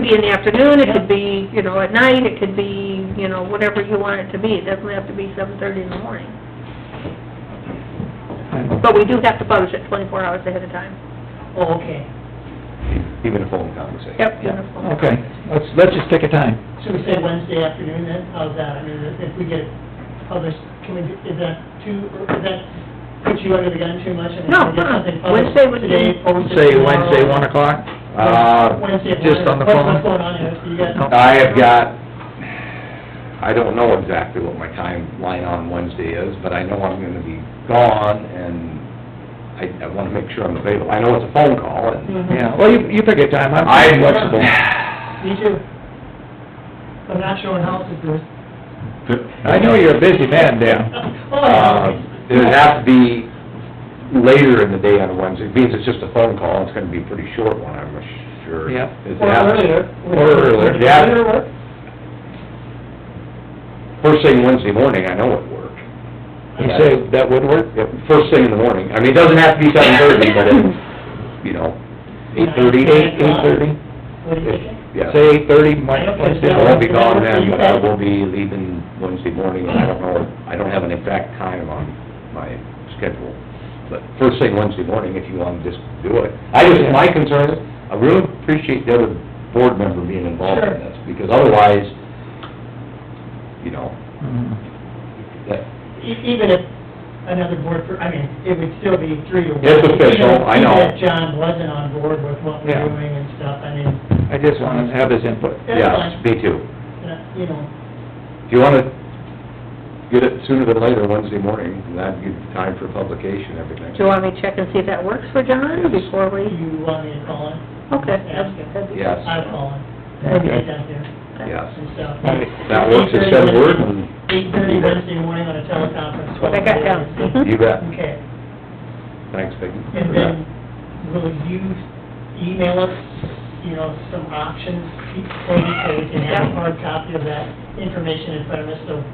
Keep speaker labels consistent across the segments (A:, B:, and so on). A: be in the afternoon, it could be, you know, at night, it could be, you know, whatever you want it to be, it doesn't have to be seven thirty in the morning. But we do have to publish it twenty-four hours ahead of time.
B: Oh, okay.
C: even a phone conversation.
A: Yep.
D: Okay, let's, let's just pick a time.
B: Should we say Wednesday afternoon then? How's that? I mean, if if we get it published, can we, do- is that too, is that, put you under the gun too much? I mean,
A: No,
B: can we get
A: uh-uh.
B: something published
A: Wednesday would be-
B: Today, posted tomorrow?
D: Say Wednesday, one o'clock?
C: Uh,
B: Wednesday at
D: just
B: one.
D: on the
B: What's-
D: phone?
B: What's going on here? You got,
C: I have got, I don't know exactly what my timeline on Wednesday is, but I know I'm gonna be gone, and I, I wanna make sure I'm available. I know it's a phone call, and
D: Yeah, well, you, you pick a time, I'm
C: I...
D: pretty flexible.
B: Mm-hmm. me too. I'm not showing houses, Bruce.
D: I know you're a busy man, Dan.
B: Oh,
C: Uh,
B: yeah.
C: It'd have to be later in the day on Wednesday, means it's just a phone call, it's gonna be a pretty short one, I'm sure.
D: Yep.
C: It's
B: Or
C: half-
B: earlier.
C: Or earlier,
B: Earlier
C: yeah.
B: work?
C: First thing Wednesday morning, I know it worked.
D: You say that would work?
C: Yep, First thing in the morning. I mean, it doesn't have to be seven thirty, but it's, you know, eight thirty.
D: Eight, eight-thirty?
B: What do you think?
C: Yeah.
D: Say eight-thirty, Mike, Wednesday.
C: I won't be gone then, but I will be leaving Wednesday morning, and I don't know, I don't have an exact time on my schedule. But first thing Wednesday morning, if you want to just do it. I just, my concern is, I really appreciate the other board member being involved in this, because otherwise, you know,
D: Mm.
C: that,
B: E- Even if another board, per- I mean, it would still be three to one.
C: It's official, I know.
B: Even if John wasn't on board with what we're
D: Yeah.
B: doing and stuff, I mean,
D: I just wanna have his input.
B: that's
C: yeah,
B: fine,
C: me too.
B: Uh, you know,
C: If you wanna get it sooner than later, Wednesday morning, and that'd give you time for publication, everything.
A: Do you want me to check and see if that works for John before
B: do
A: we,
B: you want me to call him?
A: okay.
B: Ask him.
A: that'd be-
C: Yes,
B: I'll call him, when we
C: uh,
B: get down there
C: yes.
B: and stuff.
D: Right.
C: That works, it's said word, and
B: Eight thirty Wednesday morning on a teleconference.
A: What I got down. Mhm.
C: you bet.
B: Okay,
C: Thanks, Peggy.
B: and then will you email us, you know, some options, maybe so we can have a hard copy of that information in front of us, so,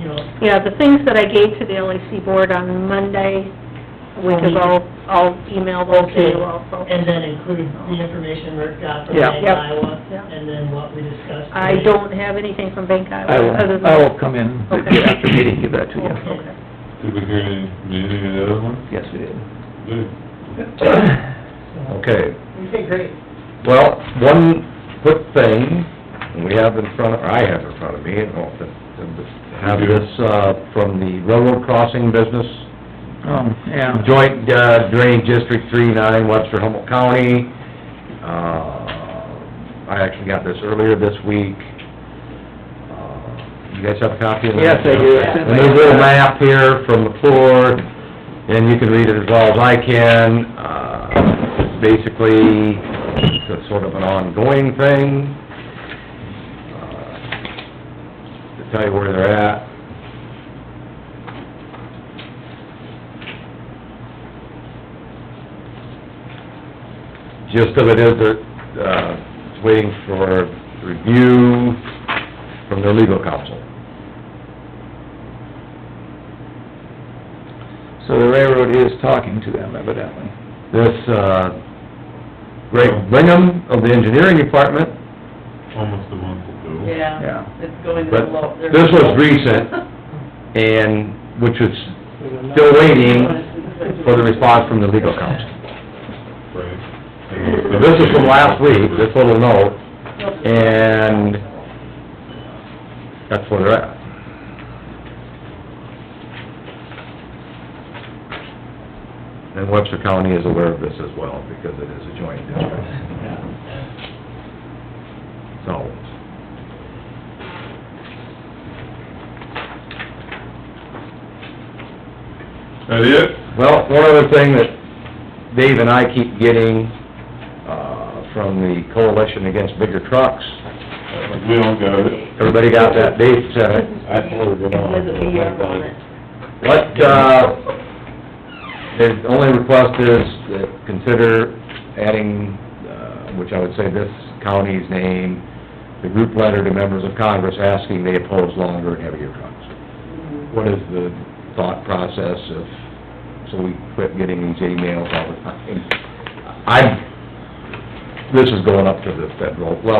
B: you know,
A: Yeah, the things that I gave to the LAC board on Monday, we could all, I'll email those to you also.
B: and then include the information Rick got from
D: Yeah.
B: Bank
A: Yep.
B: Iowa,
A: Yeah.
B: and then what we discussed.
A: I don't have anything from Bank Iowa.
D: I
A: other
D: will,
A: than-
D: I will come in the
A: Okay.
D: day after meeting, give that to you.
B: Okay.
E: Did we hear any, anything of the other one?
D: Yes, we did.
E: Good.
C: Mm.
B: So,
C: Okay,
B: Okay, great.
C: well, one quick thing we have in front, of I have in front of me, and hope that, have this, uh, from the railroad crossing business
D: Um, yeah.
C: Joint uh, Drainage District three nine, Webster Humboldt County. Uh, I actually got this earlier this week. Uh, You guys have a copy of that?
D: Yes, I do. It's in
C: And
D: my-
C: there's a little map here from the floor, and you can read it as well as I can. Uh, Basically, it's a sort of an ongoing thing. Uh, To tell you where they're at. gist of it is that, uh, it's waiting for review from their legal counsel.
D: So the railroad is talking to them evidently.
C: This, uh, Greg Bingham of the engineering department,
E: Almost a month ago.
D: Yeah.
F: it's going
C: but this was recent, and, which is still waiting for the response from the legal counsel.
E: Right.
C: This is from last week, this little note, and that's where they're at. And Webster County is aware of this as well, because it is a joint district, so.
E: That it?
C: Well, one other thing that Dave and I keep getting, uh, from the Coalition Against Bigger Trucks,
E: We all got it.
C: everybody got that, Dave sent it. What, uh, the only request is that consider adding, uh, which I would say this county's name, the group letter to members of Congress asking they oppose longer and heavier trucks. What is the thought process of, so we quit getting these emails all the time? I, this is going up to the federal level.